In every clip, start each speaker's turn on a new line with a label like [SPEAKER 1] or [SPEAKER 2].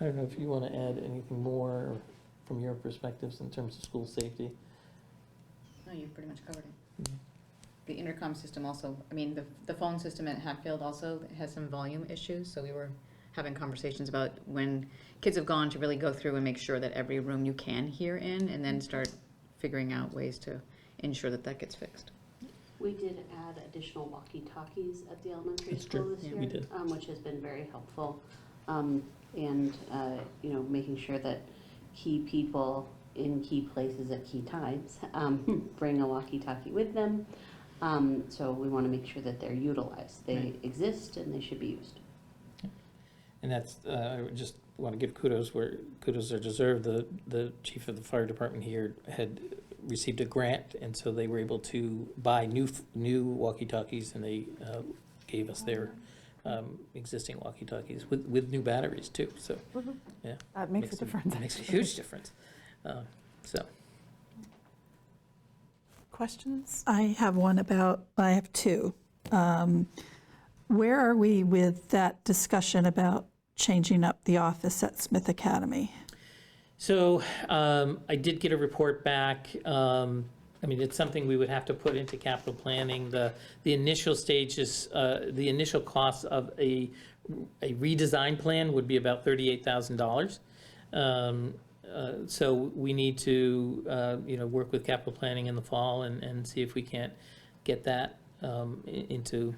[SPEAKER 1] I don't know if you want to add anything more from your perspectives in terms of school safety.
[SPEAKER 2] No, you've pretty much covered it.
[SPEAKER 1] Mhm.
[SPEAKER 2] The intercom system also, I mean, the, the phone system at Hatfield also has some volume issues, so we were having conversations about when kids have gone to really go through and make sure that every room you can hear in, and then start figuring out ways to ensure that that gets fixed.
[SPEAKER 3] We did add additional walkie-talkies at the elementary
[SPEAKER 1] That's
[SPEAKER 3] school
[SPEAKER 1] true.
[SPEAKER 3] this
[SPEAKER 2] Yeah.
[SPEAKER 3] year.
[SPEAKER 2] We
[SPEAKER 1] did.
[SPEAKER 3] um, Which has been very helpful. Um, And, uh, you know, making sure that key people in key places at key times um, bring a walkie-talkie with them. Um, So we want to make sure that they're utilized. They
[SPEAKER 1] Right.
[SPEAKER 3] exist and they should be used.
[SPEAKER 1] And that's, uh, I would just want to give kudos where kudos are deserved. The, the chief of the fire department here had received a grant, and so they were able to buy new, f- new walkie-talkies, and they uh, gave us their um, existing walkie-talkies with, with new batteries too, so.
[SPEAKER 4] Mm-hmm. That makes a difference.
[SPEAKER 1] Makes a
[SPEAKER 4] actually.
[SPEAKER 1] huge difference. Uh, So,
[SPEAKER 4] Questions?
[SPEAKER 5] I have one about, I have two. Um, Where are we with that discussion about changing up the office at Smith Academy?
[SPEAKER 1] So um, I did get a report back. Um, I mean, it's something we would have to put into capital planning. The, the initial stage is, uh, the initial cost of a a redesign plan would be about $38,000. Um, uh, So we need to, uh, you know, work with capital planning in the fall and, and see if we can't get that um, i- into,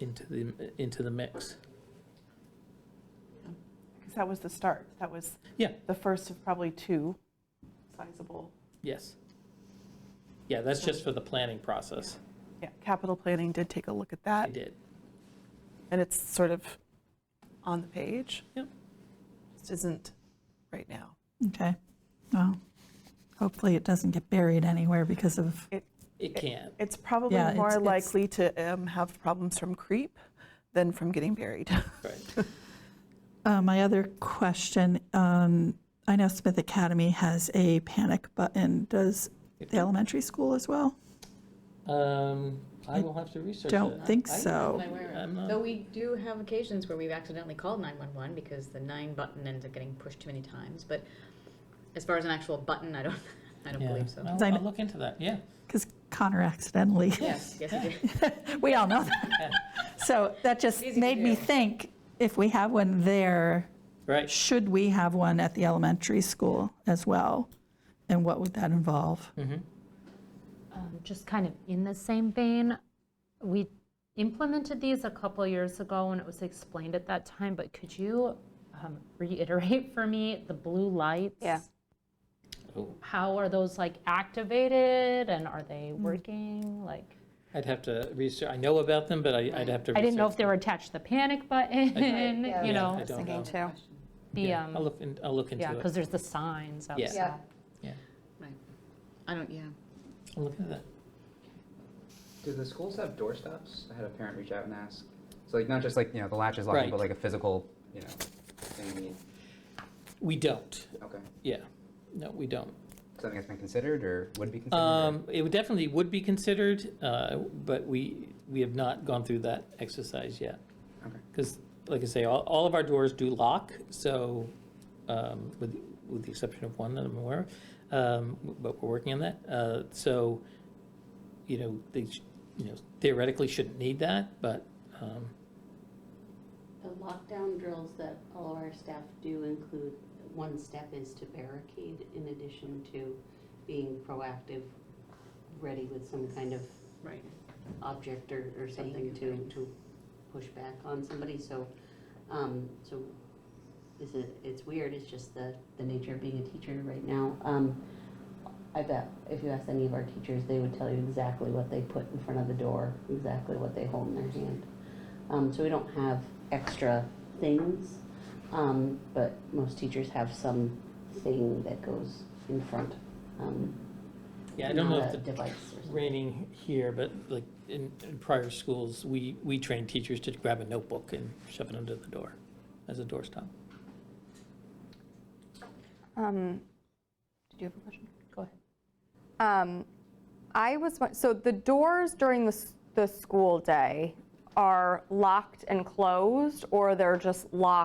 [SPEAKER 1] into the, into the mix.
[SPEAKER 4] Because that was the start. That was
[SPEAKER 1] Yeah.
[SPEAKER 4] the first of probably two sizable,
[SPEAKER 1] Yes. Yeah, that's just for the planning process.
[SPEAKER 4] yeah, capital planning did take a look at that,
[SPEAKER 1] I did.
[SPEAKER 4] and it's sort of on the page.
[SPEAKER 1] Yep.
[SPEAKER 4] Just isn't right now.
[SPEAKER 5] Okay, well, hopefully it doesn't get buried anywhere because of,
[SPEAKER 1] It can.
[SPEAKER 4] It's probably
[SPEAKER 5] Yeah, it's-
[SPEAKER 4] more
[SPEAKER 5] it's-
[SPEAKER 4] likely to um, have problems from creep than from getting buried.
[SPEAKER 1] Right.
[SPEAKER 5] Uh, my other question, um, I know Smith Academy has a panic button. Does the elementary school as well?
[SPEAKER 1] Um, I will have to research that.
[SPEAKER 5] Don't think
[SPEAKER 1] I-
[SPEAKER 5] so.
[SPEAKER 2] I'm aware of.
[SPEAKER 1] I'm not-
[SPEAKER 2] Though we do have occasions where we've accidentally called 911 because the nine button ends up getting pushed too many times, but as far as an actual button, I don't, I don't
[SPEAKER 1] Yeah,
[SPEAKER 2] believe so.
[SPEAKER 1] I'll, I'll look into that, yeah.
[SPEAKER 5] Because Connor accidentally,
[SPEAKER 2] Yes, yes, it is.
[SPEAKER 5] we all know that. So that just
[SPEAKER 2] Easy to
[SPEAKER 5] made me
[SPEAKER 2] do.
[SPEAKER 5] think, if we have one there,
[SPEAKER 1] Right,
[SPEAKER 5] Should we have one at the elementary school as well? And what would that involve?
[SPEAKER 6] Um, Just kind of in the same vein, we implemented these a couple years ago when it was explained at that time, but could you um, reiterate for me the blue lights?
[SPEAKER 7] Yeah.
[SPEAKER 1] Oh,
[SPEAKER 6] How are those like activated and are they
[SPEAKER 7] Mm.
[SPEAKER 6] working? Like,
[SPEAKER 1] I'd have to research, I know about them, but I, I'd have to research.
[SPEAKER 6] I didn't know if they
[SPEAKER 1] them.
[SPEAKER 6] were attached to the panic button,
[SPEAKER 7] yeah,
[SPEAKER 1] Yeah,
[SPEAKER 6] you know,
[SPEAKER 1] I don't know.
[SPEAKER 7] Thinking too.
[SPEAKER 6] the,
[SPEAKER 1] Yeah, I'll
[SPEAKER 6] um,
[SPEAKER 1] look, in- I'll look into
[SPEAKER 6] yeah, because
[SPEAKER 1] it.
[SPEAKER 6] there's the signs
[SPEAKER 1] Yeah.
[SPEAKER 6] outside.
[SPEAKER 7] Yeah.
[SPEAKER 2] Right. I don't, yeah.
[SPEAKER 1] I'll look into that.
[SPEAKER 8] Do the schools have doorstops? I had a parent reach out and ask. So like not just like, you know, the latch is locking,
[SPEAKER 1] Right.
[SPEAKER 8] but like a physical, you know, thing you need.
[SPEAKER 1] We don't,
[SPEAKER 8] Okay. Is
[SPEAKER 1] yeah. No, we don't.
[SPEAKER 8] that Something that's been considered or would be considered? or-
[SPEAKER 1] Um, it would definitely would be considered, uh, but we, we have not gone through that exercise yet.
[SPEAKER 8] Okay.
[SPEAKER 1] Because, like I say, all, all of our doors do lock, so, um, with, with the exception of one that I'm aware of, um, but we're working on that. Uh, so, you know, they, sh- you know, theoretically shouldn't need that, but, um,
[SPEAKER 3] The lockdown drills that all of our staff do include, one step is to barricade in addition to being proactive, ready with some kind of
[SPEAKER 2] Right.
[SPEAKER 3] object or, or something to, to push back on somebody, so, um, so is it, it's weird, it's just the, the nature of being a teacher right now. Um, I bet if you asked any of our teachers, they would tell you exactly what they put in front of the door, exactly what they hold in their hand. Um, so we don't have extra things, um, but most teachers have some thing that goes in front. um,
[SPEAKER 1] yeah, I don't know
[SPEAKER 3] not
[SPEAKER 1] if
[SPEAKER 3] a
[SPEAKER 1] the
[SPEAKER 3] Device or something.
[SPEAKER 1] raining here, but like in, in prior schools, we, we train teachers to grab a notebook and shove it under the door as a doorstop.
[SPEAKER 7] Um, Did you have a question?
[SPEAKER 6] Go ahead.
[SPEAKER 7] Um, I was, won- so the doors during the, s- the school day are locked and closed, or they're just locked